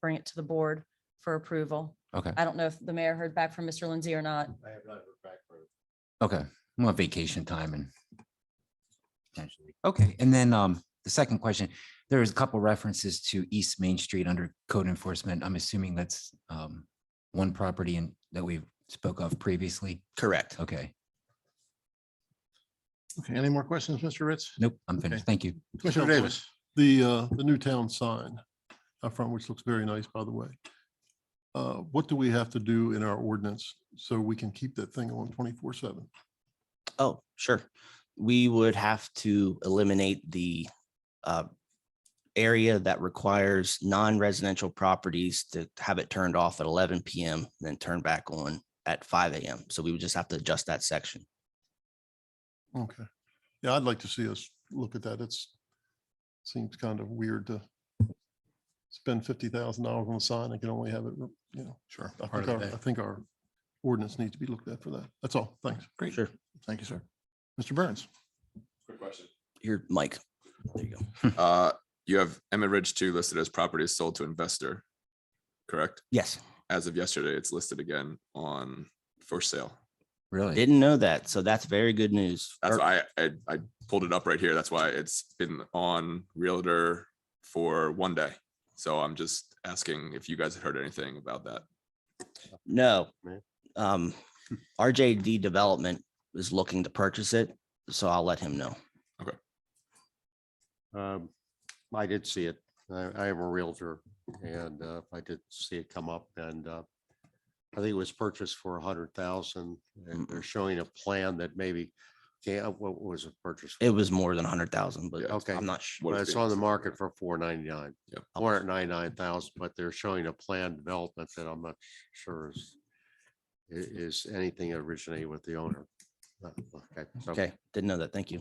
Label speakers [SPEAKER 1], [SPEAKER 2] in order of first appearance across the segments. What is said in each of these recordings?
[SPEAKER 1] bring it to the board for approval.
[SPEAKER 2] Okay.
[SPEAKER 1] I don't know if the mayor heard back from Mr. Lindsay or not.
[SPEAKER 3] I have not heard back from.
[SPEAKER 2] Okay, I'm on vacation time and. potentially. Okay, and then um, the second question, there is a couple references to East Main Street under code enforcement. I'm assuming that's um. One property and that we spoke of previously.
[SPEAKER 4] Correct.
[SPEAKER 2] Okay,
[SPEAKER 5] Okay, any more questions, Mr. Ritz?
[SPEAKER 2] nope, I'm finished. Thank you.
[SPEAKER 5] Commissioner
[SPEAKER 3] Councilman.
[SPEAKER 5] Davis, the, uh, the new town sign up front, which looks very nice, by the way. Uh, what do we have to do in our ordinance so we can keep that thing on twenty-four seven?
[SPEAKER 4] Oh, sure. We would have to eliminate the uh, area that requires non-residential properties to have it turned off at eleven PM, then turn back on at five AM. So we would just have to adjust that section.
[SPEAKER 5] Okay. Yeah, I'd like to see us look at that. It's, seems kind of weird to spend fifty thousand dollars on a sign and can only have it, you know.
[SPEAKER 3] Sure.
[SPEAKER 5] I think our, I think our ordinance needs to be looked at for that. That's all. Thanks.
[SPEAKER 4] Great. Sure.
[SPEAKER 5] Thank you, sir. Mr. Burns?
[SPEAKER 6] Quick question.
[SPEAKER 4] Here, Mike. There you go.
[SPEAKER 6] Uh, you have Emmett Ridge two listed as properties sold to investor, correct?
[SPEAKER 4] Yes,
[SPEAKER 6] As of yesterday, it's listed again on for sale.
[SPEAKER 2] Really?
[SPEAKER 4] didn't know that. So that's very good news. Er,
[SPEAKER 6] That's
[SPEAKER 4] Or-
[SPEAKER 6] why I, I, I pulled it up right here. That's why it's been on Realtor for one day. So I'm just asking if you guys had heard anything about that.
[SPEAKER 4] No.
[SPEAKER 3] Man.
[SPEAKER 4] Um, RJD Development is looking to purchase it, so I'll let him know.
[SPEAKER 3] Um, I did see it. I, I am a Realtor and uh, I did see it come up and uh, I think it was purchased for a hundred thousand and they're showing a plan that maybe, yeah, what was it purchased? for?
[SPEAKER 4] It was more than a hundred thousand, but
[SPEAKER 6] Yeah.
[SPEAKER 4] okay,
[SPEAKER 3] Okay.
[SPEAKER 4] I'm not sure.
[SPEAKER 6] What
[SPEAKER 3] But
[SPEAKER 6] is
[SPEAKER 3] It's
[SPEAKER 6] being
[SPEAKER 3] on the
[SPEAKER 6] sold.
[SPEAKER 3] market for four ninety-nine.
[SPEAKER 6] Yep.
[SPEAKER 3] Four hundred ninety-nine thousand, but they're showing a planned development that I'm not sure is i- is anything originated with the owner. Uh, so-
[SPEAKER 4] Okay, didn't know that. Thank you.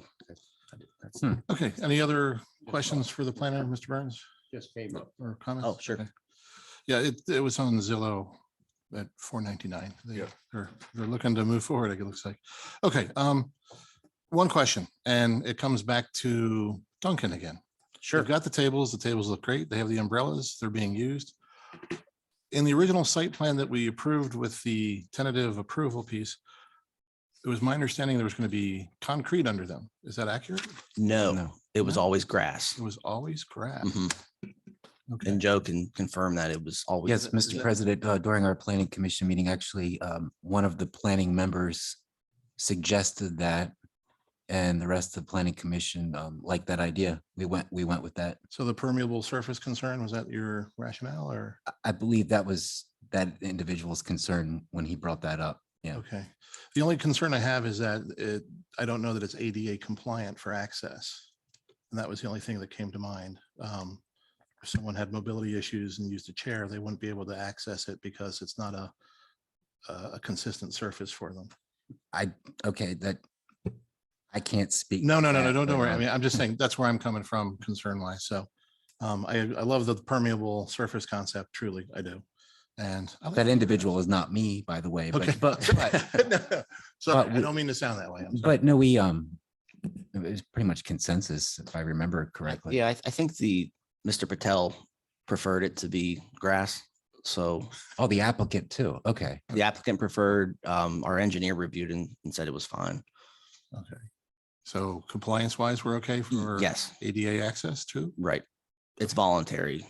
[SPEAKER 5] Okay, any other
[SPEAKER 6] uh,
[SPEAKER 5] questions for the planner, Mr. Burns?
[SPEAKER 3] Just came up.
[SPEAKER 5] or comments?
[SPEAKER 4] Oh, sure.
[SPEAKER 5] Okay. Yeah, it, it was on Zillow at four ninety-nine. They,
[SPEAKER 6] Yeah.
[SPEAKER 5] they're, they're looking to move forward, it looks like. Okay, um, one question, and it comes back to Duncan again.
[SPEAKER 4] Sure.
[SPEAKER 5] They've got the tables, the tables look great, they have the umbrellas, they're being used. In the original site plan that we approved with the tentative approval piece, it was my understanding there was going to be concrete under them. Is that accurate?
[SPEAKER 4] No,
[SPEAKER 2] No.
[SPEAKER 4] it was
[SPEAKER 5] No?
[SPEAKER 4] always grass.
[SPEAKER 5] It was always grass.
[SPEAKER 4] Mhm.
[SPEAKER 5] Okay.
[SPEAKER 4] And Joe can confirm that it was always.
[SPEAKER 2] Yes,
[SPEAKER 5] is
[SPEAKER 2] Mr.
[SPEAKER 5] that-
[SPEAKER 2] President, uh, during our planning commission meeting, actually, um, one of the planning members suggested that. And the rest of the planning commission, um, liked that idea. We went, we went with that.
[SPEAKER 5] So the permeable surface concern, was that your rationale or?
[SPEAKER 2] I- I believe that was that individual's concern when he brought that up. Yeah.
[SPEAKER 5] Okay. The only concern I have is that it, I don't know that it's ADA compliant for access. And that was the only thing that came to mind. Um, If someone had mobility issues and used a chair, they wouldn't be able to access it because it's not a, a a consistent surface for them.
[SPEAKER 2] Okay, that I can't speak.
[SPEAKER 5] No,
[SPEAKER 2] to
[SPEAKER 5] no, no, no,
[SPEAKER 2] that,
[SPEAKER 5] don't,
[SPEAKER 2] but,
[SPEAKER 5] don't worry. I
[SPEAKER 2] um,
[SPEAKER 5] mean, I'm just saying, that's where I'm coming from concern wise. So um, I, I love the permeable surface concept, truly, I do. And. I like
[SPEAKER 2] That
[SPEAKER 5] the-
[SPEAKER 2] individual is not me, by the way,
[SPEAKER 5] Okay,
[SPEAKER 2] but, but, but-
[SPEAKER 5] but. Sorry, I
[SPEAKER 2] we-
[SPEAKER 5] don't mean to sound that way. I'm sorry.
[SPEAKER 2] but no, we, um, it was pretty much consensus, if I remember correctly.
[SPEAKER 4] Yeah, I, I think the, Mr. Patel preferred it to be grass. So
[SPEAKER 2] Oh, the applicant too. Okay.
[SPEAKER 4] the applicant preferred, um, our engineer reviewed and, and said it was fine.
[SPEAKER 5] So compliance wise, we're okay for
[SPEAKER 4] Yes,
[SPEAKER 5] ADA access too?
[SPEAKER 4] right. It's voluntary.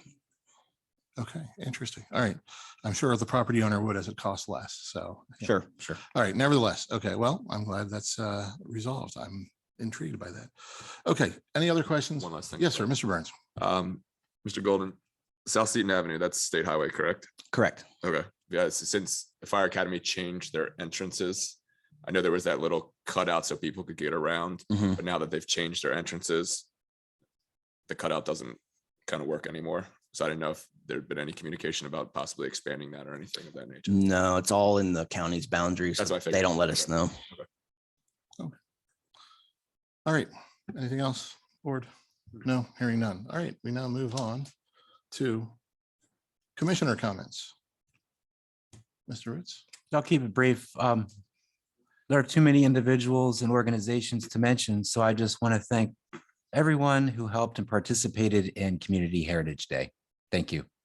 [SPEAKER 5] Okay, interesting. All right. I'm sure the property owner would as it costs less. So. yeah.
[SPEAKER 4] Sure, sure.
[SPEAKER 5] All right, nevertheless, okay, well, I'm glad that's uh resolved. I'm intrigued by that. Okay, any other questions?
[SPEAKER 6] One last thing.
[SPEAKER 5] Yes, sir, Mr. Burns.
[SPEAKER 6] Um, Mr. Golden, South Seaton Avenue, that's state highway, correct?
[SPEAKER 4] Correct.
[SPEAKER 6] Okay, yeah, so since the fire academy changed their entrances, I know there was that little cutout so people could get around,
[SPEAKER 4] Mhm.
[SPEAKER 6] but now that they've changed their entrances, the cutout doesn't kind of work anymore. So I didn't know if there'd been any communication about possibly expanding that or anything of that nature.
[SPEAKER 4] No, it's all in the county's boundaries.
[SPEAKER 6] That's what I
[SPEAKER 4] They
[SPEAKER 6] figured.
[SPEAKER 4] don't let us
[SPEAKER 6] Okay.
[SPEAKER 4] know.
[SPEAKER 5] All right, anything else, board? No, hearing none. All right, we now move on to commissioner comments. Mr. Ritz?
[SPEAKER 2] I'll keep it brief. Um, there are too many individuals and organizations to mention, so I just want to thank everyone who helped and participated in Community Heritage Day. Thank you.